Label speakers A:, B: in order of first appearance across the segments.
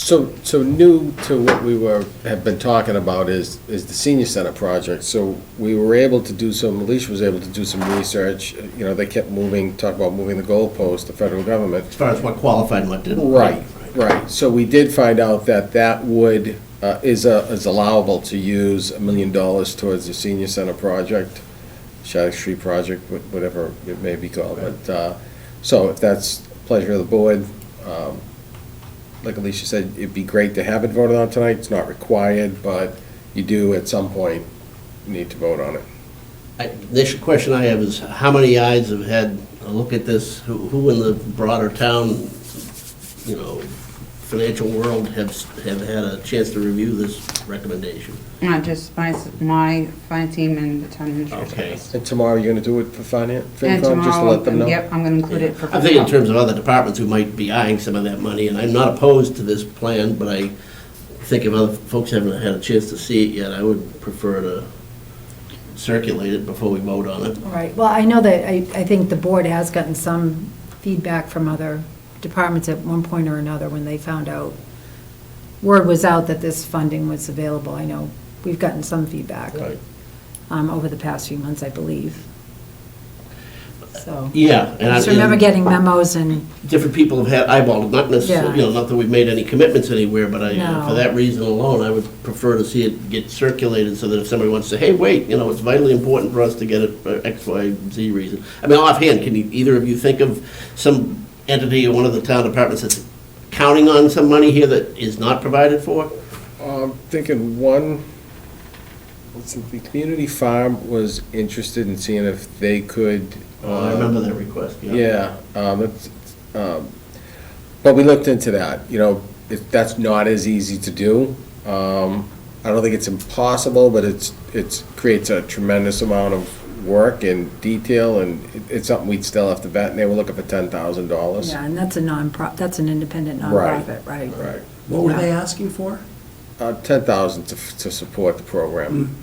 A: So, so new to what we were, have been talking about is, is the senior center project. So we were able to do some, Alicia was able to do some research, you know, they kept moving, talk about moving the goalpost, the federal government.
B: As far as what qualified and what didn't.
A: Right, right. So we did find out that that would, uh, is a- is allowable to use a million dollars towards the senior center project, Shattuck Street project, wh- whatever it may be called. But, uh, so if that's pleasure of the board, um, like Alicia said, it'd be great to have it voted on tonight. It's not required, but you do at some point need to vote on it.
B: I- The question I have is, how many eyes have had a look at this? Who who in the broader town, you know, financial world have, s- have had a chance to review this recommendation?
C: Not just my, my fine team and the town administrator's
B: Okay.
C: office.
A: And tomorrow you're gonna do it for finance, FinCom,
C: And
A: just to
C: tomorrow,
A: let them know?
C: Yep, I'm gonna include it for.
B: I think in
C: FinCom.
B: terms of other departments who might be eyeing some of that money, and I'm not opposed to this plan, but I think if other folks haven't had a chance to see it yet, I would prefer to circulate it before we vote on it.
D: All right, well, I know that, I, I think the board has gotten some feedback from other departments at one point or another when they found out, word was out that this funding was available. I know we've gotten some feedback um, over the past few months, I believe. So,
B: Yeah. and I-
D: just remember
B: and-
D: getting memos and,
B: different people have had eyeballed, it, not necessarily, you know, not that we've made any commitments anywhere, but I,
D: No.
B: for that reason alone, I would prefer to see it get circulated so that if somebody wants to say, hey, wait, you know, it's vitally important for us to get it for X, Y, Z reason. I mean, offhand, can you, either of you think of some entity or one of the town departments that's counting on some money here that is not provided for?
A: I'm thinking one, let's see, the community farm was interested in seeing if they could.
B: Oh, I
A: uh,
B: remember that request, yeah.
A: Yeah, um, it's, um, but we looked into that, you know, it, that's not as easy to do. Um, I don't think it's impossible, but it's, it's, creates a tremendous amount of work and detail, and it- it's something we'd still have to vet, and they were looking for ten thousand dollars.
D: yeah, and that's a non-profit, that's an independent
A: Right.
D: nonprofit, right?
A: Right,
E: What were they asking for?
A: uh, ten thousand to, f- to support the program.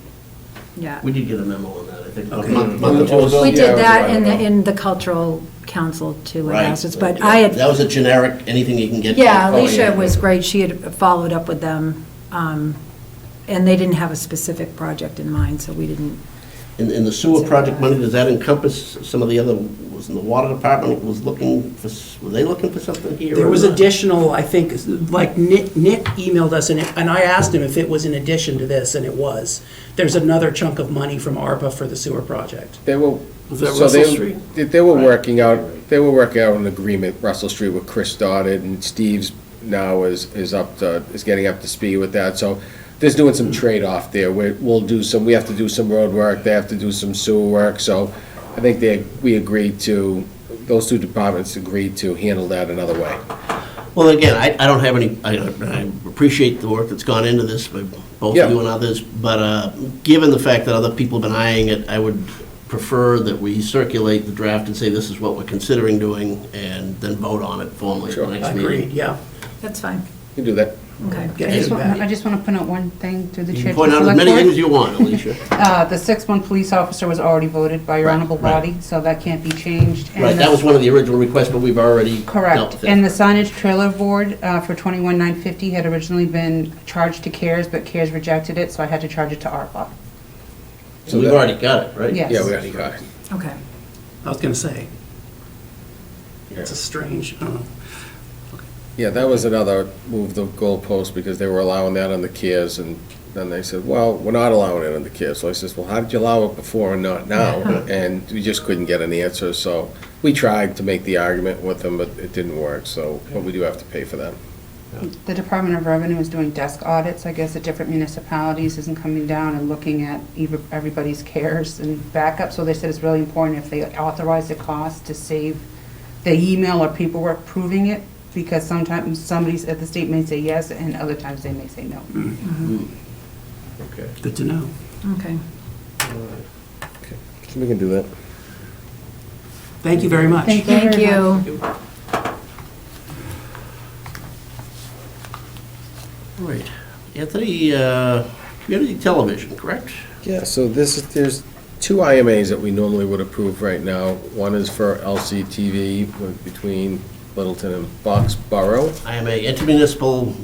D: Yeah.
B: We did get a memo on that, I think, a
E: Okay.
B: month, month or two
A: Oh,
B: ago.
D: We
A: yeah, it
D: did
A: was
D: that
A: right
D: in
A: around.
D: the, in the cultural council too, in
B: Right.
D: Massachusetts, but I had
B: That was a generic, anything you can get.
D: Yeah,
A: Oh, yeah.
D: Alicia was great. She had followed up with them, um, and they didn't have a specific project in mind, so we didn't.
B: And, and the sewer project money, does that encompass some of the other, was the water department was looking for, s- were they looking for something here?
E: There
B: or
E: was
B: not?
E: additional, I think, like Nick, Nick emailed us and, and I asked him if it was in addition to this, and it was. There's another chunk of money from ARPA for the sewer project.
A: They were.
F: Was that
A: so
F: Russell
A: they-
F: Street?
A: They, they were working out, they were working out an agreement, Russell Street, with Chris started, and Steve's now is, is up to, is getting up to speed with that, so there's doing some trade-off there, we, we'll do some, we have to do some road work, they have to do some sewer work, so I think they, we agreed to, those two departments agreed to handle that another way.
B: Well, again, I, I don't have any, I, I appreciate the work that's gone into this by both
A: Yeah.
B: you and others, but, uh, given the fact that other people have been eyeing it, I would prefer that we circulate the draft and say this is what we're considering doing, and then vote on it formally at the next meeting.
E: Agreed, yeah.
D: That's fine.
A: You do that.
D: Okay.
C: I just
E: Getting
C: want,
E: back.
C: I just want to point out one thing through the
B: You
C: chair.
B: can point
C: to the
B: out as
C: select
B: many
C: board.
B: things as you want, Alicia.
C: Uh, the six-one police officer was already voted by your honorable
B: right.
C: body, so that can't be changed. And
B: Right,
C: the-
B: that was one of the original requests, but we've already dealt
C: Correct.
B: with it.
C: And the signage trailer board uh, for twenty-one nine fifty had originally been charged to CARES, but CARES rejected it, so I had to charge it to ARPA.
B: So We've already got it, right?
C: Yes.
A: Yeah, we already got it.
D: Okay.
E: I was gonna say. It's a strange, uh, I don't know.
A: Yeah, that was another move the goalpost because they were allowing that on the Kias and then they said, well, we're not allowing it on the Kias. So I says, well, how did you allow it before and not now? And we just couldn't get an answer, so we tried to make the argument with them, but it didn't work, so, but we do have to pay for that.
C: The Department of Revenue is doing desk audits, I guess, at different municipalities, isn't coming down and looking at ev- everybody's cares and backup. So they said it's really important if they authorize the cost to save the email or paperwork proving it, because sometimes somebody's at the state may say yes, and other times they may say no.
B: Okay.
E: Good to know.
D: Okay.
A: So we can do that.
E: Thank you very much.
C: Thank you
D: Thank
C: very much.
D: you.
B: All right. Anthony, uh, community television, correct?
A: Yeah, so this, is- there's two IMAs that we normally would approve right now. One is for LCTV with- between Littleton and Boxborough.
B: I am a intermunicipal